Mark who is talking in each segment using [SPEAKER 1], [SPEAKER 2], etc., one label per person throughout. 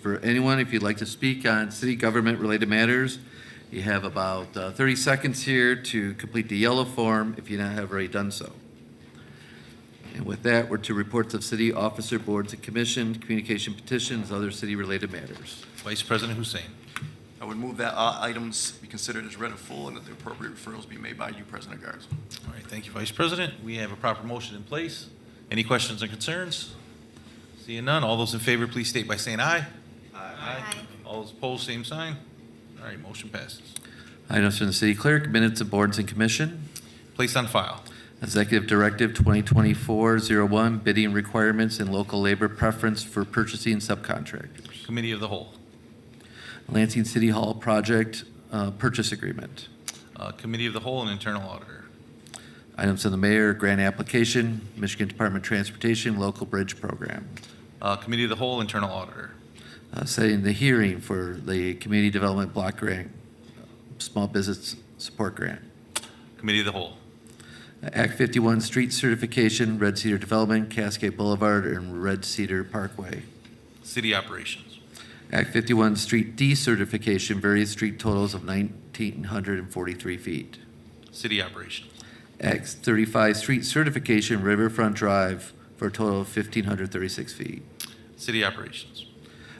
[SPEAKER 1] For anyone, if you'd like to speak on city government-related matters, you have about uh, 30 seconds here to complete the yellow form if you not have already done so. And with that, we're to reports of city officer boards and commission, communication petitions, other city-related matters.
[SPEAKER 2] Vice President Hussein.
[SPEAKER 3] I would move that all items be considered as read and full and that the appropriate referrals be made by you, President Garza.
[SPEAKER 2] All right, thank you, Vice President. We have a proper motion in place. Any questions and concerns? Seeing none, all those in favor, please state by saying aye.
[SPEAKER 4] Aye.
[SPEAKER 2] All those opposed, same sign. All right, motion passes.
[SPEAKER 1] Items from the city clerk, minutes of boards and commission,
[SPEAKER 2] Placed on file.
[SPEAKER 1] executive directive 2024-01, bidding requirements and local labor preference for purchasing subcontractors.
[SPEAKER 2] Committee of the Whole.
[SPEAKER 1] Lansing City Hall project uh, purchase agreement.
[SPEAKER 2] Uh, Committee of the Whole and Internal Auditor.
[SPEAKER 1] Items from the mayor, grant application, Michigan Department of Transportation, local bridge program.
[SPEAKER 2] Uh, Committee of the Whole, Internal Auditor.
[SPEAKER 1] Uh, Setting the hearing for the community development block grant, small business support grant.
[SPEAKER 2] Committee of the Whole.
[SPEAKER 1] Act 51 street certification, Red Cedar Development, Cascade Boulevard, and Red Cedar Parkway.
[SPEAKER 2] City Operations.
[SPEAKER 1] Act 51 street decertification, various street totals of 1,943 feet.
[SPEAKER 2] City Operations.
[SPEAKER 1] Act 35 street certification, Riverfront Drive, for a total of 1,536 feet.
[SPEAKER 2] City Operations.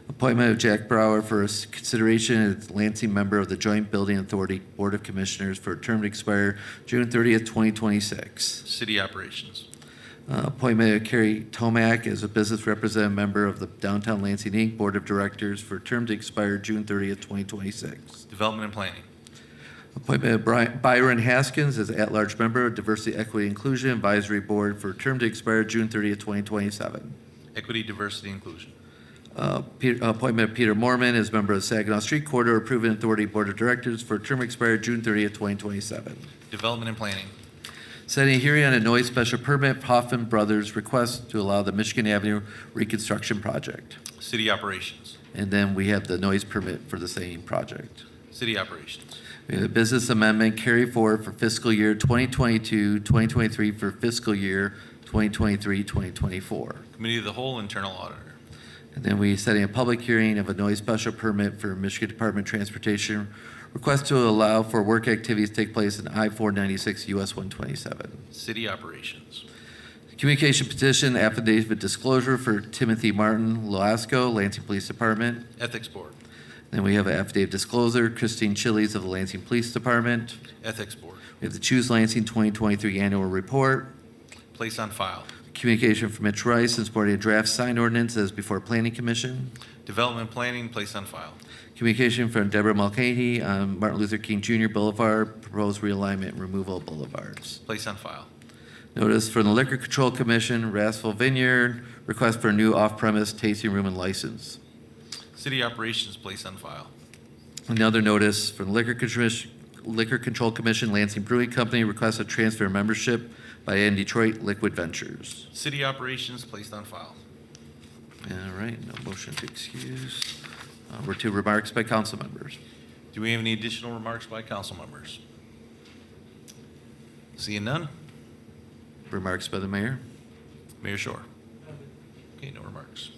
[SPEAKER 1] Appointment of Jack Brower for s- consideration as Lansing member of the Joint Building Authority Board of Commissioners for a term to expire June 30th, 2026.
[SPEAKER 2] City Operations.
[SPEAKER 1] Uh, Appointment of Carrie Tomac as a business representative member of the Downtown Lansing Inc. Board of Directors for a term to expire June 30th, 2026.
[SPEAKER 2] Development and Planning.
[SPEAKER 1] Appointment of Bri- Byron Haskins as at-large member of Diversity Equity Inclusion Advisory Board for a term to expire June 30th, 2027.
[SPEAKER 2] Equity, Diversity, Inclusion.
[SPEAKER 1] Uh, Peter- Appointment of Peter Mormon as member of Saginaw Street Corridor Improvement Authority Board of Directors for a term expired June 30th, 2027.
[SPEAKER 2] Development and Planning.
[SPEAKER 1] Setting a hearing on a noise special permit, Hoffman Brothers request to allow the Michigan Avenue reconstruction project.
[SPEAKER 2] City Operations.
[SPEAKER 1] And then we have the noise permit for the same project.
[SPEAKER 2] City Operations.
[SPEAKER 1] We have the business amendment carry forward for fiscal year 2022, 2023 for fiscal year 2023, 2024.
[SPEAKER 2] Committee of the Whole, Internal Auditor.
[SPEAKER 1] And then we setting a public hearing of a noise special permit for Michigan Department of Transportation, request to allow for work activities to take place in I-496 US 127.
[SPEAKER 2] City Operations.
[SPEAKER 1] Communication petition affidavit disclosure for Timothy Martin Loasco, Lansing Police Department.
[SPEAKER 2] Ethics Board.
[SPEAKER 1] Then we have an affidavit disclosure, Christine Chili's of the Lansing Police Department.
[SPEAKER 2] Ethics Board.
[SPEAKER 1] We have the Choose Lansing 2023 Annual Report.
[SPEAKER 2] Place on file.
[SPEAKER 1] Communication from Mitch Rice in supporting a draft sign ordinance as before Planning Commission.
[SPEAKER 2] Development Planning, place on file.
[SPEAKER 1] Communication from Deborah Mulcahy on Martin Luther King Jr. Boulevard, proposed realignment and removal of boulevards.
[SPEAKER 2] Place on file.
[SPEAKER 1] Notice from the Liquor Control Commission, Rassville Vineyard, request for a new off-premise tasting room and license.
[SPEAKER 2] City Operations, place on file.
[SPEAKER 1] Another notice from the Liquor Contrish- Liquor Control Commission, Lansing Brewing Company, request a transfer of membership by in Detroit Liquid Ventures.
[SPEAKER 2] City Operations, placed on file.
[SPEAKER 1] All right, no motion to excuse. Uh, We're to remarks by council members.
[SPEAKER 2] Do we have any additional remarks by council members? Seeing none?
[SPEAKER 1] Remarks by the mayor.
[SPEAKER 2] Mayor Shore. Okay, no remarks.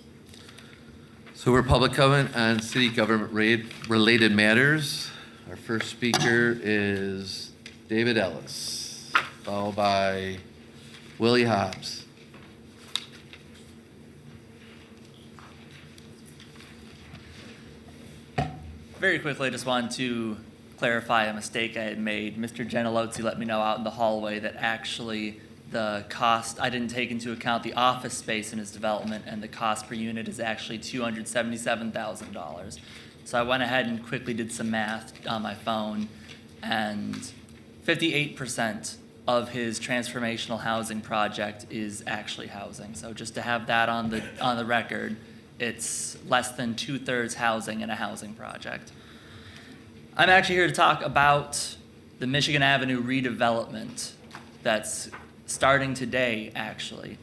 [SPEAKER 1] So we're public comment on city government ra- related matters. Our first speaker is David Ellis, followed by Willie Hobbs.
[SPEAKER 5] Very quickly, I just wanted to clarify a mistake I had made. Mr. Gentilozzi let me know out in the hallway that actually the cost, I didn't take into account the office space in his development, and the cost per unit is actually two hundred seventy-seven thousand dollars. So I went ahead and quickly did some math on my phone, and fifty-eight percent of his transformational housing project is actually housing. So just to have that on the, on the record, it's less than two-thirds housing in a housing project. I'm actually here to talk about the Michigan Avenue redevelopment that's starting today, actually.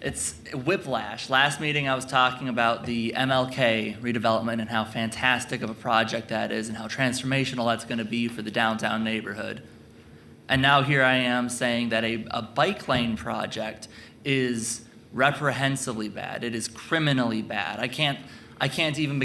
[SPEAKER 5] It's whiplash. Last meeting, I was talking about the MLK redevelopment and how fantastic of a project that is and how transformational that's going to be for the downtown neighborhood. And now here I am saying that a, a bike lane project is reprehensibly bad. It is criminally bad. I can't, I can't even